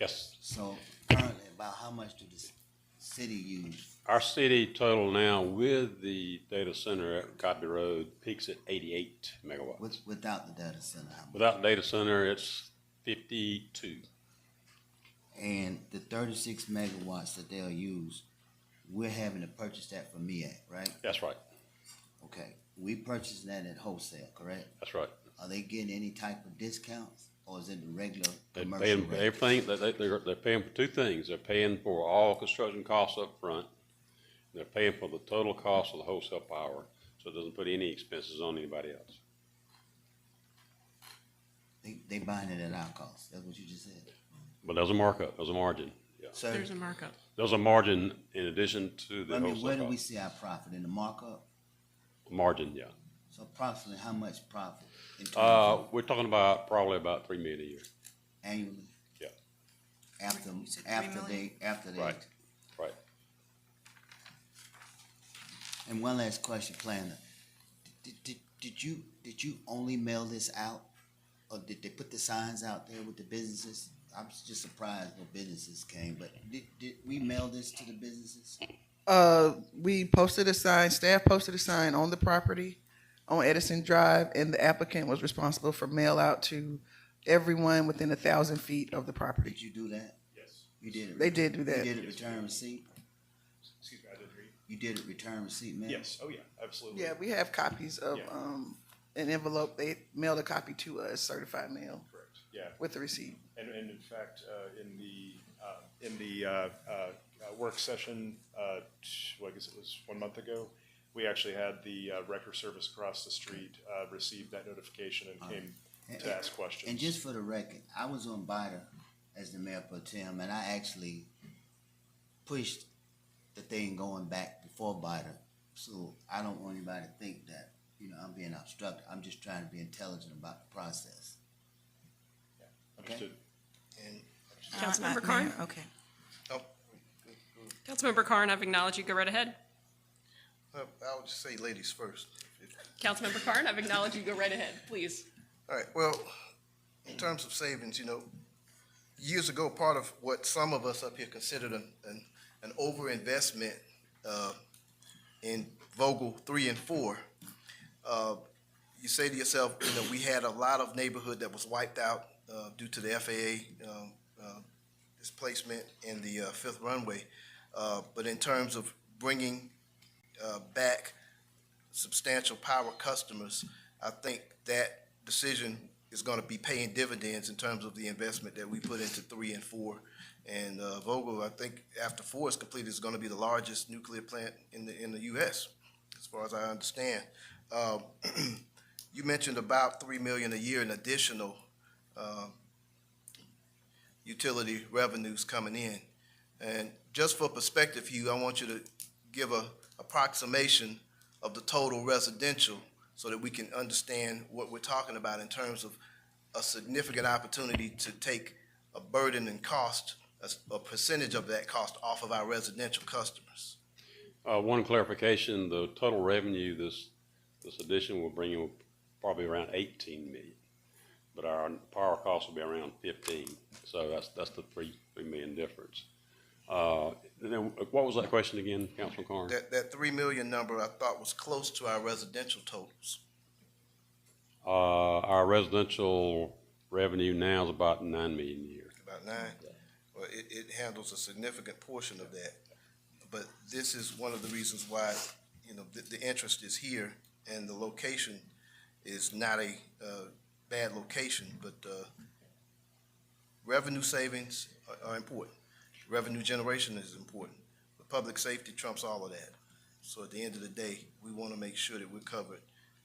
Yes. So currently, about how much do the s- city use? Our city total now with the data center at Cotby Road peaks at eighty-eight megawatts. With, without the data center, how much? Without data center, it's fifty-two. And the thirty-six megawatts that they'll use, we're having to purchase that from MEAC, right? That's right, Okay, we purchasing that at wholesale, correct? that's right. Are they getting any type of discounts, or is it the regular They're commercial paying, rate? everything, they, they, they're, they're paying for two things. They're paying for all construction costs up front. They're paying for the total cost of the wholesale power, so it doesn't put any expenses on anybody else. They, they buying it at our cost, that's what you just said? But there's a markup, there's a margin, yeah. Sir, There's a markup. There's a margin in addition to the I mean, where wholesale do we cost. see our profit, in the markup? Margin, yeah. So approximately how much profit in terms Uh, of we're talking about probably about three million a year. annually? Yeah, After, You said three after they, million? after they. Right. right. And one last question, planner. Did, did, did you, did you only mail this out? Or did they put the signs out there with the businesses? I'm just surprised no businesses came, but did, did we mail this to the businesses? Uh, we posted a sign, staff posted a sign on the property on Edison Drive, and the applicant was responsible for mail out to everyone within a thousand feet of the property. Did you do that? Yes. You did it? They did do You that. did it return receipt? Excuse me, I didn't hear you. You did it return receipt, man? Yes, oh yeah, absolutely. Yeah, we have copies of, Yeah. um, an envelope. They mailed a copy to us, certified mail, Correct, yeah. with the receipt. And, and in fact, uh, in the, uh, in the, uh, uh, uh, work session, uh, t- well, I guess it was one month ago, we actually had the, uh, record service across the street, uh, receive that notification and came to ask questions. And just for the record, I was on Biden as the mayor pro tem, and I actually pushed the thing going back before Biden. So I don't want anybody to think that, you know, I'm being obstructed. I'm just trying to be intelligent about the process. Understood. Uh, Councilmember Carn? Okay. Oh, Councilmember Carn, I've acknowledged you. Go right ahead. uh, I'll just say ladies first. Councilmember Carn, I've acknowledged you. Go right ahead, please. All right, well, in terms of savings, you know, years ago, part of what some of us up here considered an, an, an overinvestment, uh, in Vogel three and four, uh, you say to yourself, you know, we had a lot of neighborhood that was wiped out, uh, due to the FAA, um, uh, displacement in the, uh, fifth runway. Uh, but in terms of bringing, uh, back substantial power customers, I think that decision is going to be paying dividends in terms of the investment that we put into three and four. And uh, Vogtle, I think after four is completed, is going to be the largest nuclear plant in the, in the U.S., as far as I understand. Um, You mentioned about three million a year in additional um, utility revenues coming in. And just for perspective, Hugh, I want you to give a approximation of the total residential so that we can understand what we're talking about in terms of a significant opportunity to take a burden and cost, a s- a percentage of that cost off of our residential customers. Uh, one clarification, the total revenue this, this addition will bring in probably around eighteen million. But our power cost will be around fifteen, so that's, that's the three, three million difference. Uh, and then what was that question again, Councilman Carn? That, that three million number I thought was close to our residential totals. Uh, our residential revenue now is about nine million a year. about nine. Well, it, it handles a significant portion of that. But this is one of the reasons why, you know, the, the interest is here and the location is not a, uh, bad location, but, uh, revenue savings are, are important. Revenue generation is important. But public safety trumps all of that. So at the end of the day, we want to make sure that we're covered,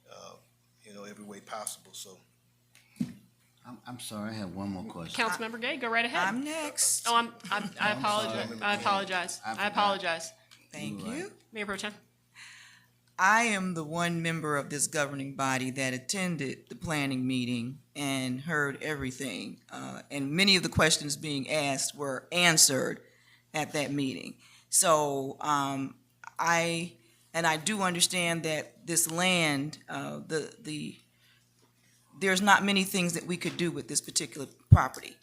uh, you know, every way possible, so. I'm, I'm sorry, I have one more question. Councilmember Gay, go right ahead. I'm next. Oh, I'm, I'm, I apologize. I apologize. I I forgot. apologize. Thank you. Mayor Pro Tem. I am the one member of this governing body that attended the planning meeting and heard everything. Uh, and many of the questions being asked were answered at that meeting. So, um, I, and I do understand that this land, uh, the, the, there's not many things that we could do with this particular property.